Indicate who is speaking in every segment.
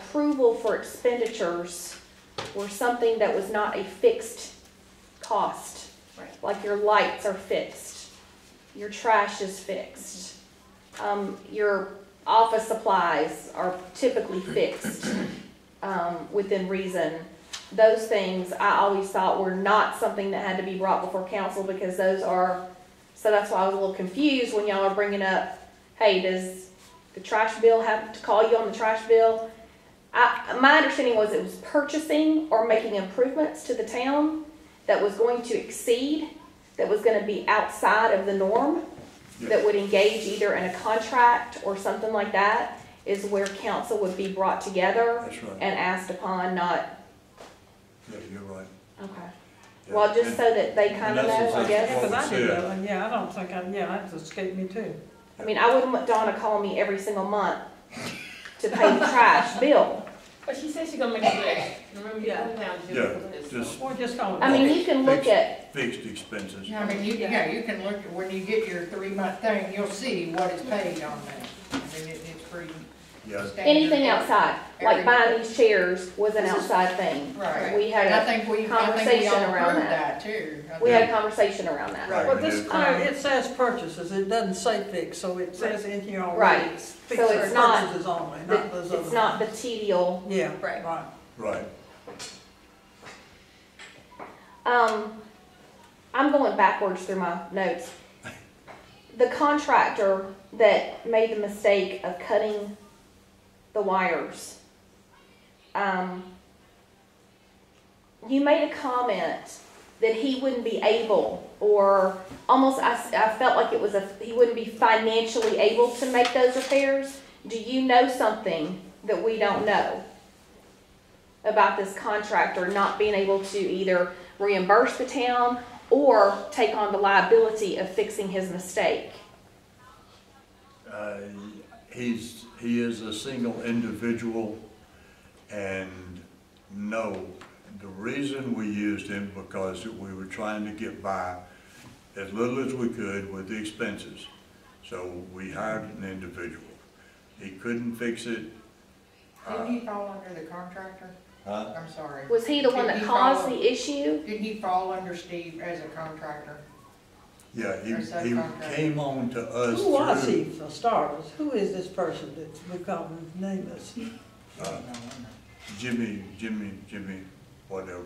Speaker 1: approval for expenditures were something that was not a fixed cost.
Speaker 2: Right.
Speaker 1: Like your lights are fixed, your trash is fixed, um, your office supplies are typically fixed, um, within reason. Those things I always thought were not something that had to be brought before council because those are, so that's why I was a little confused when y'all are bringing up, hey, does the trash bill have to call you on the trash bill? I, my understanding was it was purchasing or making improvements to the town that was going to exceed, that was gonna be outside of the norm, that would engage either in a contract or something like that, is where council would be brought together
Speaker 3: That's right.
Speaker 1: and asked upon, not,
Speaker 3: Yeah, you're right.
Speaker 1: okay.
Speaker 3: Yeah.
Speaker 1: Well, just so that they
Speaker 3: And
Speaker 1: kinda
Speaker 3: that's
Speaker 1: know, I
Speaker 3: exactly
Speaker 1: guess.
Speaker 3: what
Speaker 4: Because
Speaker 3: we
Speaker 4: I did
Speaker 3: said.
Speaker 4: that one, yeah, I don't think I, yeah, that's escaped me too.
Speaker 1: I mean, I wouldn't want Donna calling me every single month to pay the trash bill.
Speaker 2: But she said she's gonna make a list. Remember, you
Speaker 4: Yeah.
Speaker 2: put it down. she
Speaker 3: Yeah,
Speaker 2: put it down.
Speaker 3: just-
Speaker 4: We're just going.
Speaker 1: I mean, you can look at,
Speaker 3: Fixed expenses.
Speaker 5: I mean, you, yeah, you can look, when you get your three-month thing, you'll see what is paid on that. I mean, it, it's pretty
Speaker 3: Yeah,
Speaker 5: standard.
Speaker 1: anything outside, like buying these chairs was an outside thing.
Speaker 5: Right.
Speaker 1: We had
Speaker 5: And
Speaker 1: a
Speaker 5: I think we, I think we
Speaker 1: conversation
Speaker 5: all
Speaker 1: around
Speaker 5: approved
Speaker 1: that.
Speaker 5: that too. I
Speaker 1: We
Speaker 5: think-
Speaker 1: had a conversation around that.
Speaker 3: Right.
Speaker 4: Well, this, clear- it says purchases, it doesn't say fix, so it says in here already.
Speaker 1: Right.
Speaker 4: it's
Speaker 1: So
Speaker 4: fixed
Speaker 1: it's not-
Speaker 4: Purchases only, not those
Speaker 1: But
Speaker 4: other.
Speaker 1: It's not the tedial.
Speaker 4: Yeah,
Speaker 2: Right.
Speaker 4: right.
Speaker 3: right.
Speaker 1: Um, I'm going backwards through my notes. The contractor that made the mistake of cutting the wires, um, you made a comment that he wouldn't be able, or almost I, s- I felt like it was a he wouldn't be financially able to make those repairs. Do you know something that we don't know about this contractor not being able to either reimburse the town or take on the liability of fixing his mistake?
Speaker 3: Uh, He's, he is a single individual, and no, the reason we used him because we were trying to get by as little as we could with the expenses. So we hired an individual. He couldn't fix it.
Speaker 5: Didn't he fall under the contractor?
Speaker 3: Huh?
Speaker 5: I'm sorry.
Speaker 1: Was he the one that
Speaker 5: Did he
Speaker 1: caused
Speaker 5: follow-
Speaker 1: the issue?
Speaker 5: Didn't he fall under Steve as a contractor?
Speaker 3: Yeah, he,
Speaker 5: Or subcontractor.
Speaker 3: he came on to us
Speaker 4: Who was
Speaker 3: through-
Speaker 4: he for starters? Who is this person that's become nameless?
Speaker 3: Uh, Jimmy, Jimmy, Jimmy, whatever.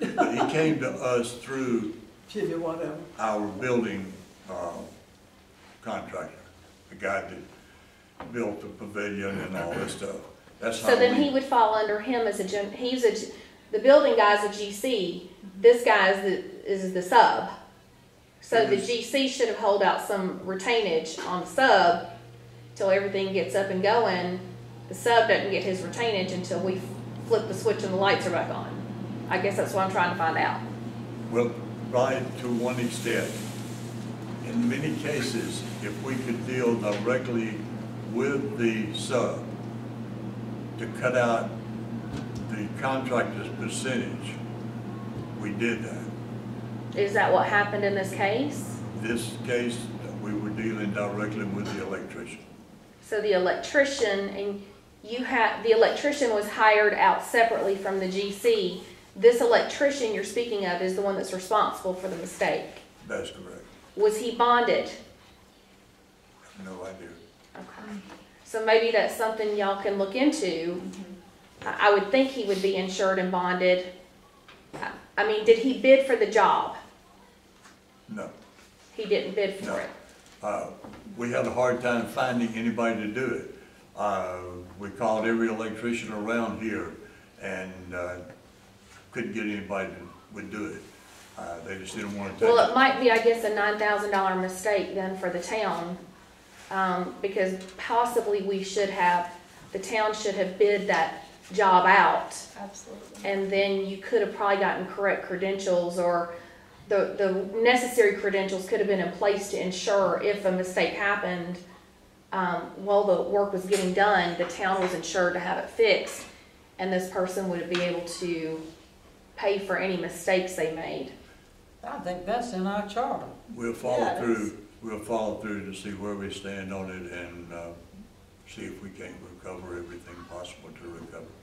Speaker 3: But he came to us through
Speaker 4: Jimmy, whatever.
Speaker 3: our building uh, contractor, the guy that built the pavilion and all this stuff. That's how
Speaker 1: So then he
Speaker 3: we,
Speaker 1: would fall under him as a gen, he's a, g- the building guy's a GC, this guy is the, is the sub. So the
Speaker 3: Mhm.
Speaker 1: GC should have held out some retainage on the sub till everything gets up and going. The sub doesn't get his retainage until we flip the switch and the lights are back on. I guess that's what I'm trying to find out.
Speaker 3: well, right to one extent. In many cases, if we could deal directly with the sub to cut out the contractor's percentage, we did that.
Speaker 1: Is that what happened in this case?
Speaker 3: This case, we were dealing directly with the electrician.
Speaker 1: So the electrician and you had, the electrician was hired out separately from the GC. This electrician you're speaking of is the one that's responsible for the mistake.
Speaker 3: That's correct.
Speaker 1: Was he bonded?
Speaker 3: No idea.
Speaker 1: Okay. So maybe that's something y'all can look into. I, I would think he would be insured and bonded. I- I mean, did he bid for the job?
Speaker 3: No.
Speaker 1: He didn't bid for
Speaker 3: No.
Speaker 1: it.
Speaker 3: Uh, We had a hard time finding anybody to do it. Uh, We called every electrician around here and uh, couldn't get anybody that would do it. Uh, They just didn't want to
Speaker 1: Well,
Speaker 3: take
Speaker 1: it
Speaker 3: it.
Speaker 1: might be, I guess, a nine thousand dollar mistake then for the town, um, because possibly we should have, the town should have bid that job out.
Speaker 2: Absolutely.
Speaker 1: And then you could have probably gotten correct credentials or the, the necessary credentials could have been in place to ensure if a mistake happened, um, while the work was getting done, the town was insured to have it fixed. And this person would be able to pay for any mistakes they made.
Speaker 4: I think that's in our charter.
Speaker 3: We'll follow
Speaker 4: Yeah,
Speaker 3: through, we'll follow through to see where we stand on it and uh, see if we can't recover everything possible to recover.